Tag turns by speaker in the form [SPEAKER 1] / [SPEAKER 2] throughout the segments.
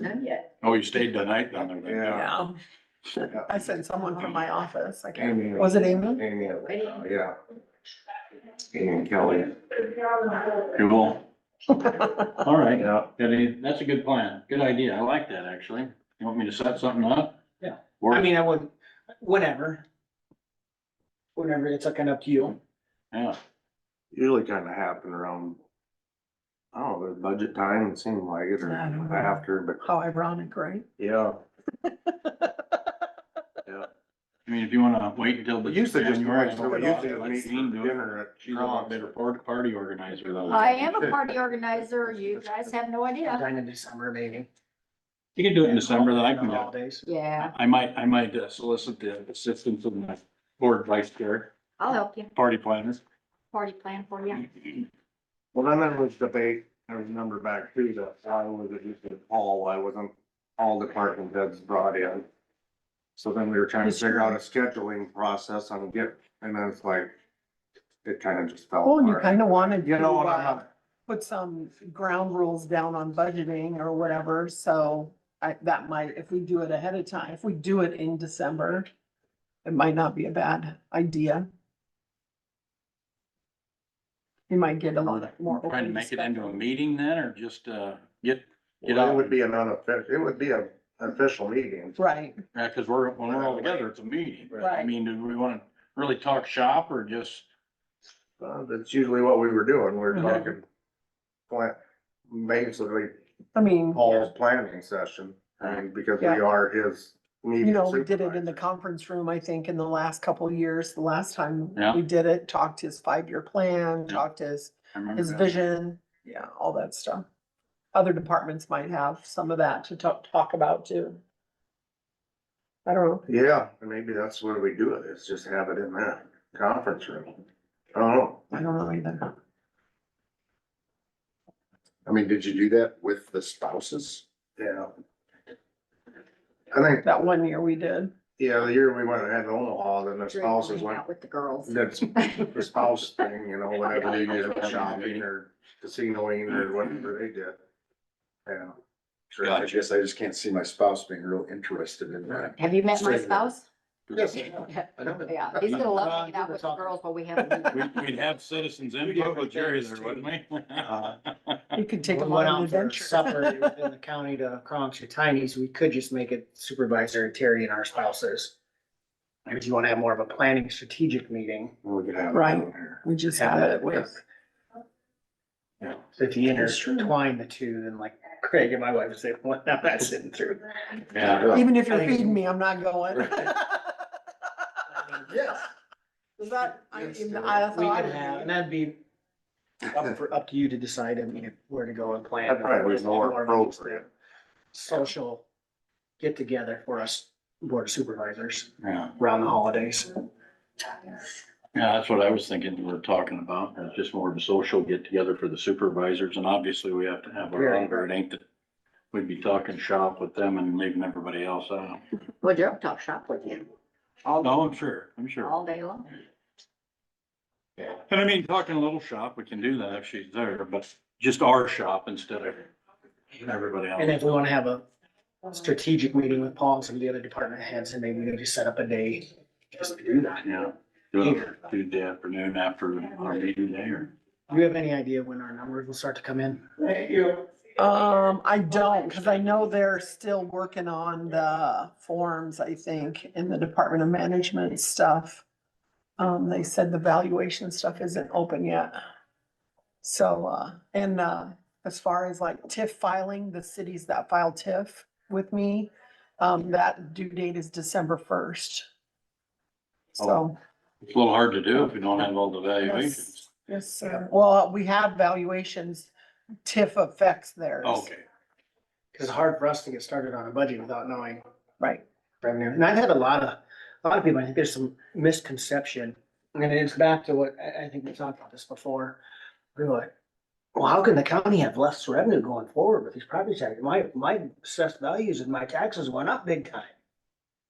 [SPEAKER 1] None yet.
[SPEAKER 2] Oh, you stayed the night down there.
[SPEAKER 3] Yeah.
[SPEAKER 4] No. I sent someone from my office. I can't,
[SPEAKER 3] Amy.
[SPEAKER 4] was it Amy?
[SPEAKER 3] Amy, uh, yeah. Amy and Kelly.
[SPEAKER 2] Cool. All right, yeah, that is- that's a good plan. Good idea. I like that, actually. You want me to set something up?
[SPEAKER 5] Yeah.
[SPEAKER 2] Or,
[SPEAKER 5] I mean, I would, whenever. Whenever, it's like kind of up to you.
[SPEAKER 2] yeah,
[SPEAKER 3] Usually kind of happen around, I don't know, the budget time, it seemed like it, or
[SPEAKER 4] I don't know.
[SPEAKER 3] after, but
[SPEAKER 4] How ironic, right?
[SPEAKER 3] yeah.
[SPEAKER 2] I mean, if you wanna wait until. the
[SPEAKER 3] But usually just,
[SPEAKER 2] January,
[SPEAKER 3] usually we
[SPEAKER 2] I'll
[SPEAKER 3] usually just
[SPEAKER 2] let
[SPEAKER 3] meet
[SPEAKER 2] Jean
[SPEAKER 3] for
[SPEAKER 2] do it.
[SPEAKER 3] dinner at.
[SPEAKER 2] She's a lot better part- party organizer though.
[SPEAKER 1] I am a party organizer. You guys have no idea.
[SPEAKER 5] Sometime in December, maybe.
[SPEAKER 2] You can do it in December, then I can, go.
[SPEAKER 5] Holidays.
[SPEAKER 1] Yeah,
[SPEAKER 2] I might, I might uh, solicit the assistance of my board vice chair,
[SPEAKER 1] I'll help you.
[SPEAKER 2] party planners.
[SPEAKER 1] Party plan for you.
[SPEAKER 3] Well, then there was debate, I remember back to that, why was it just a hall, why wasn't all department heads brought in? So then we were trying to figure out a scheduling process on get, and then it's like, it kind of just fell
[SPEAKER 4] Well, you
[SPEAKER 3] apart.
[SPEAKER 4] kind of wanted
[SPEAKER 3] You
[SPEAKER 4] to
[SPEAKER 3] know what I'm
[SPEAKER 4] uh, put some ground rules down on budgeting or whatever, so I, that might, if we do it ahead of time, if we do it in December, it might not be a bad idea. You might get a
[SPEAKER 1] Oh,
[SPEAKER 4] lot more.
[SPEAKER 2] Trying to
[SPEAKER 4] open
[SPEAKER 2] make it into a
[SPEAKER 4] discussion.
[SPEAKER 2] meeting then, or just, uh, get, get
[SPEAKER 3] Well, It
[SPEAKER 2] out,
[SPEAKER 3] would be an unofficial, it would be a official meeting.
[SPEAKER 4] Right,
[SPEAKER 2] yeah, uh, cause we're, when we're all together, it's a meeting. I
[SPEAKER 4] Right.
[SPEAKER 2] mean, do we wanna really talk shop or just,
[SPEAKER 3] Uh, That's usually what we were doing, we were
[SPEAKER 4] Uh-huh.
[SPEAKER 2] Mhm.
[SPEAKER 3] talking plan, basically
[SPEAKER 4] I mean,
[SPEAKER 3] Paul's planning session, and because we
[SPEAKER 4] Yeah.
[SPEAKER 3] are his meeting.
[SPEAKER 4] you know, we did it in the
[SPEAKER 3] supervisor.
[SPEAKER 4] conference room, I think, in the last couple of years, the last time
[SPEAKER 2] Yeah.
[SPEAKER 4] we did it, talked his five-year plan,
[SPEAKER 2] Yeah.
[SPEAKER 4] talked his
[SPEAKER 2] I remember
[SPEAKER 4] his
[SPEAKER 2] that.
[SPEAKER 4] vision, yeah, all that stuff. Other departments might have some of that to talk, talk about too. I don't know,
[SPEAKER 3] Yeah, and maybe that's where we do it, is just have it in that conference room. I don't know.
[SPEAKER 4] I don't know either.
[SPEAKER 6] I mean, did you do that with the spouses?
[SPEAKER 3] Yeah. I think,
[SPEAKER 4] That one year we did,
[SPEAKER 3] yeah, the year we went ahead to Omaha, then the spouses
[SPEAKER 1] Hang
[SPEAKER 3] went,
[SPEAKER 1] out With the girls.
[SPEAKER 3] that's the spouse thing, you know, whatever they did, shopping or casinoing or whatever they did. Yeah. Sure.
[SPEAKER 6] I guess I just can't see my spouse being real interested in that.
[SPEAKER 1] Have you met my
[SPEAKER 6] Straight up.
[SPEAKER 1] spouse?
[SPEAKER 6] Yes.
[SPEAKER 5] I know that.
[SPEAKER 1] Yeah, he's gonna love
[SPEAKER 5] Uh,
[SPEAKER 1] hanging out with the
[SPEAKER 5] talking.
[SPEAKER 1] girls while we have. a meeting.
[SPEAKER 2] We'd, we'd have citizens input with Jerry there, wouldn't we?
[SPEAKER 4] you could take
[SPEAKER 5] We
[SPEAKER 4] them
[SPEAKER 5] went
[SPEAKER 4] on an
[SPEAKER 5] out for Supper
[SPEAKER 4] adventure.
[SPEAKER 5] within the county to Kronk Tiny's, we could just make it supervisor Terry and our spouses. Or do you wanna have more of a planning strategic meeting?
[SPEAKER 3] We could have. it
[SPEAKER 4] Right.
[SPEAKER 3] in there.
[SPEAKER 4] We just had it
[SPEAKER 5] Yeah.
[SPEAKER 4] with,
[SPEAKER 5] So if you
[SPEAKER 4] That's true.
[SPEAKER 5] intertwine the two, then like Craig and my wife would say, what, now that's sitting through.
[SPEAKER 2] Yeah,
[SPEAKER 4] even if you're
[SPEAKER 5] I think-
[SPEAKER 4] feeding me, I'm not going.
[SPEAKER 6] Yes.
[SPEAKER 4] Is that, I
[SPEAKER 6] Yes,
[SPEAKER 4] mean,
[SPEAKER 6] do it.
[SPEAKER 4] I
[SPEAKER 5] We
[SPEAKER 4] thought.
[SPEAKER 5] can have, and that'd be up for, up to you to decide, I mean, where to go and plan.
[SPEAKER 3] That probably was more
[SPEAKER 5] More of a
[SPEAKER 3] appropriate.
[SPEAKER 5] Social get together for us board of supervisors
[SPEAKER 2] yeah,
[SPEAKER 5] around the holidays.
[SPEAKER 2] yeah, that's what I was thinking we were talking about, It's just more of a social get together for the supervisors, and obviously we have to have our own, or it ain't that we'd be talking shop with them and leaving everybody else out.
[SPEAKER 1] Well, Joe, talk shop with you
[SPEAKER 2] Oh, no, I'm sure, I'm sure.
[SPEAKER 1] all day long.
[SPEAKER 2] And I mean, talking a little shop, we can do that if she's there, but just our shop instead of everybody
[SPEAKER 5] And
[SPEAKER 2] else.
[SPEAKER 5] if we wanna have a strategic meeting with Paul and some of the other department heads, and maybe we need to set up a day just to do that.
[SPEAKER 2] Yeah, do it Tuesday afternoon after our meeting day or.
[SPEAKER 5] Do you have any idea when our numbers will start to come in?
[SPEAKER 4] Um, I don't, because I know they're still working on the forms, I think, in the Department of Management stuff. Um, they said the valuation stuff isn't open yet. So, uh, and, uh, as far as like TIF filing, the cities that file TIF with me, um, that due date is December first.
[SPEAKER 2] Oh,
[SPEAKER 4] So.
[SPEAKER 2] It's a little hard to do if you don't have all the valuations.
[SPEAKER 4] yes, Yes, sir. Well, we have valuations, TIF affects theirs.
[SPEAKER 2] Okay,
[SPEAKER 5] Cause it's hard for us to get started on a budget without knowing
[SPEAKER 4] Right.
[SPEAKER 5] revenue. And I've had a lot of, a lot of people, I think there's some misconception. And it's back to what, I, I think we talked about this before. We were like, well, how can the county have less revenue going forward with these property taxes? My, my assessed values and my taxes went up big time.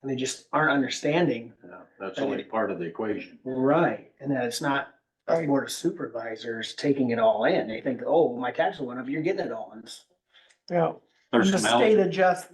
[SPEAKER 5] And they just aren't understanding.
[SPEAKER 2] yeah, that's only part of the equation.
[SPEAKER 5] Right. And that it's not us
[SPEAKER 4] Right.
[SPEAKER 5] board of supervisors taking it all in. They think, oh, my taxes went up, you're getting it all. And it's-
[SPEAKER 4] Yeah.
[SPEAKER 2] There's
[SPEAKER 4] The
[SPEAKER 2] some
[SPEAKER 4] state
[SPEAKER 2] eligible.
[SPEAKER 4] adjust,